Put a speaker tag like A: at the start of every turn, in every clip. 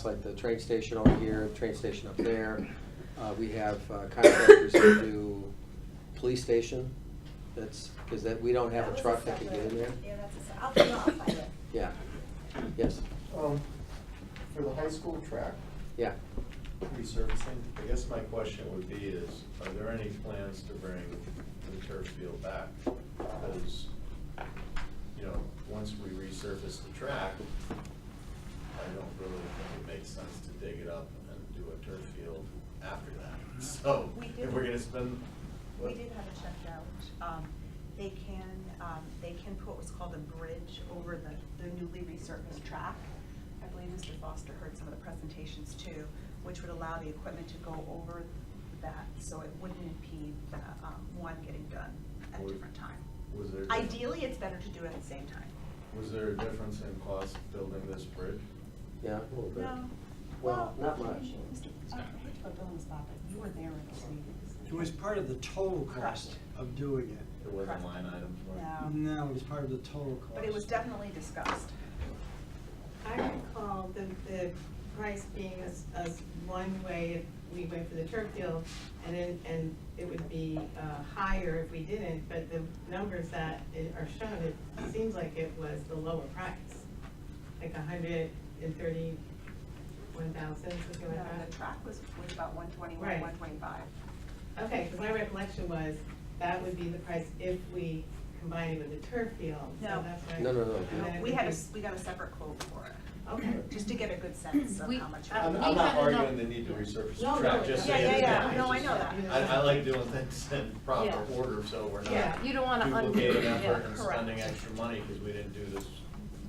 A: It's like the train station over here, the train station up there. Uh, we have uh, contractors that do police station, that's, because that, we don't have a
B: was
A: truck that can get
B: separate-
A: in there.
B: Yeah, that's a, se- I'll, no, I'll find it.
A: Yeah, yes,
C: Um, for the high school track
A: yeah.
C: resurfacing,
D: I guess my question would be is, are there any plans to bring the turf field back? Because, you know, once we resurface the track, I don't really think it makes sense to dig it up and do a turf field after that. So,
B: We
D: if
B: did-
D: we're gonna spend.
B: We did have it checked out. Um, They can, um, they can put what's called a bridge over the, the newly resurfaced track. I believe Mr. Foster heard some of the presentations too, which would allow the equipment to go over that, so it wouldn't impede the, um, one getting done at a
D: Was-
B: different time.
D: Was there?
B: Ideally, it's better to do it at the same time.
D: Was there a difference in cost of building this bridge?
A: Yeah, a little bit.
B: No.
A: Well, not much.
B: Mr. I hate to put Bill on the spot, but you were there in those meetings.
E: It was part of the total cost of doing it.
D: There wasn't
B: Correct.
D: line item for it?
B: No.
E: No, it was part of the total cost.
B: Um, But it was definitely discussed.
F: I recall the, the price being as, as one way if we went for the turf field, and then, and it would be, uh, higher if we didn't, but the numbers that i- are shown, it seems like it was the lower price. Like a hundred and thirty-one thousand, something like
B: Uh,
F: that.
B: The track was, was about one twenty-one,
F: Right.
B: one twenty-five.
F: Okay, because my recollection was, that would be the price if we combined it with the turf field, so
B: No.
F: that's why.
A: No, no, no.
F: And then it
B: We
F: would
B: had a,
F: be-
B: s- we got a separate quote for it,
F: Okay. Um,
B: just to get a good sense of
G: We-
B: how much. it
D: I'm,
B: was.
D: I'm
G: We
D: not
G: had enough-
D: arguing the need to resurface
F: No,
D: the
F: no,
D: track, just
B: yeah, yeah,
D: saying. that
B: yeah. No, I
D: it's
B: know
D: just-
F: that.
D: I, I like doing things in proper
F: Yeah.
D: order, so we're
F: Yeah.
D: not.
G: You don't wanna un-
D: Duplicating
G: yeah,
D: effort and
B: correct.
D: spending extra money, because we didn't do this,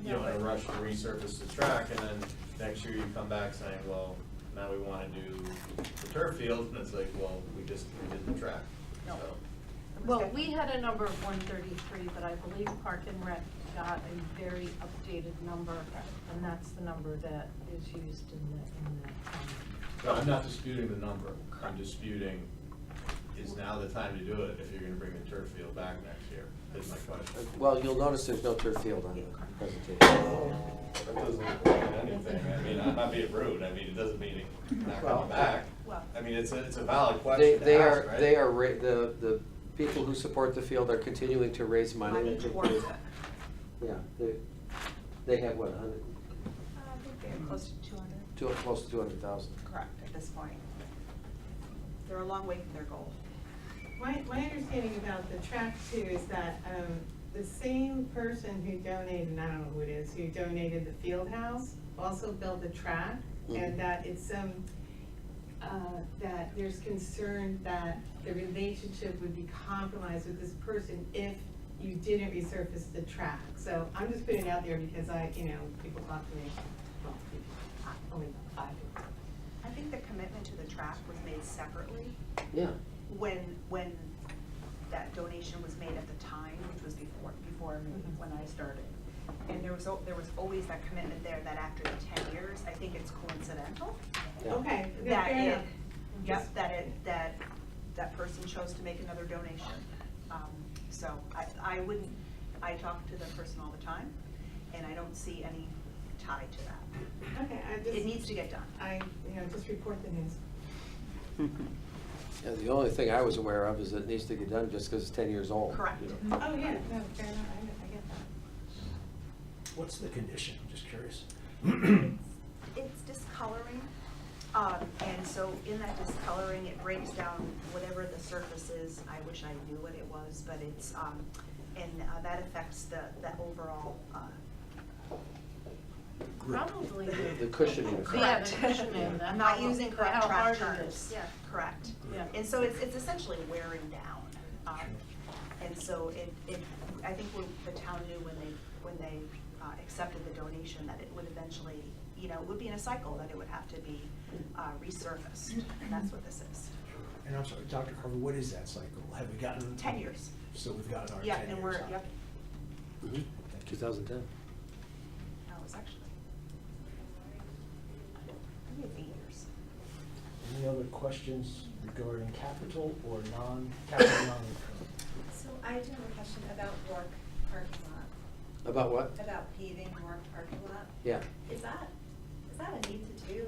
D: you
F: No,
D: know, in a
F: but-
D: rush to resurface the track, and then next year you come back saying, well, now we wanna do the turf field, and it's like, well, we just, we did the track, so.
B: No. It was
G: Well,
B: good.
G: we had a number of one thirty-three, but I believe Park and Rec got a very updated number, and that's the number that is used in the, in the. um,
D: No, I'm not disputing the number, I'm disputing, is now the time to do it if you're gonna bring the turf field back next year, is my question.
A: Well, you'll notice there's no turf field on the presentation.
D: That doesn't mean anything, I mean, I'm not being rude, I mean, it doesn't mean it's not
A: Well-
D: coming back.
B: Well-
D: I mean, it's a, it's a valid
A: They,
D: question
A: they
D: to ask,
A: are,
D: right?
A: they are, ra- the, the people who support the field are continuing to raise money.
B: Money towards it.
A: Yeah, they, they have what, a hundred,
B: Uh, I think they're close to two hundred.
A: two, close to two hundred thousand?
B: Correct, at this point. They're a long way from their goal.
F: My, my understanding about the track too is that, um, the same person who donated, and I don't know who it is, who donated the field house, also built the track,
A: Mhm.
F: and that it's some, uh, that there's concern that the relationship would be compromised with this person if you didn't resurface the track. So I'm just putting it out there because I, you know, people talk to me, well, people, only five people.
B: I think the commitment to the track was made separately
A: Yeah,
B: when, when that donation was made at the time, which was before, before me,
F: Mhm.
B: when I started. And there was, al- there was always that commitment there that after the ten years, I think it's coincidental
A: yeah.
F: Okay,
B: that
F: fair
B: it,
F: enough. Mm-hmm.
B: yep, that it, that, that person chose to make another donation. Um, So I, I wouldn't, I talk to the person all the time, and I don't see any tie to that.
F: Okay, I just.
B: It needs to get done.
F: I, you know, just report the news.
A: Yeah, the only thing I was aware of is it needs to get done just because it's ten years old.
B: Correct.
A: you know.
F: Oh, yeah, no, fair enough, I, I get that.
H: What's the condition? I'm just curious.
B: It's discoloring, um, and so in that discoloring, it breaks down whatever the surface is. I wish I knew what it was, but it's, um, and uh, that affects the, the overall, uh,
G: Probably.
A: The cushioning.
G: Yeah,
B: Correct.
G: the cushioning, the
B: I'm not
G: how-
B: using correct
G: how
B: track
G: hard it
B: terms.
G: is. Yeah.
B: Correct.
G: Yeah.
B: And so it's, it's essentially wearing down. Um, And so it, it, I think when the town knew when they, when they uh, accepted the donation that it would eventually, you know, it would be in a cycle that it would have to be uh, resurfaced. And that's what this is.
H: And I'm sorry, Dr. Carver, what is that cycle? Have we gotten?
B: Ten years.
H: So we've gotten our ten years
B: Yeah,
H: out.
B: and we're, yep.
A: Mm-hmm. Two thousand ten.
B: No, it was actually, maybe it's eight years.
H: Any other questions regarding capital or non-capital, non-recurring?
I: So I do have a question about Rourke parking lot,
A: About what?
I: about paving Rourke parking lot.
A: Yeah.
I: Is that, is that a need to
B: do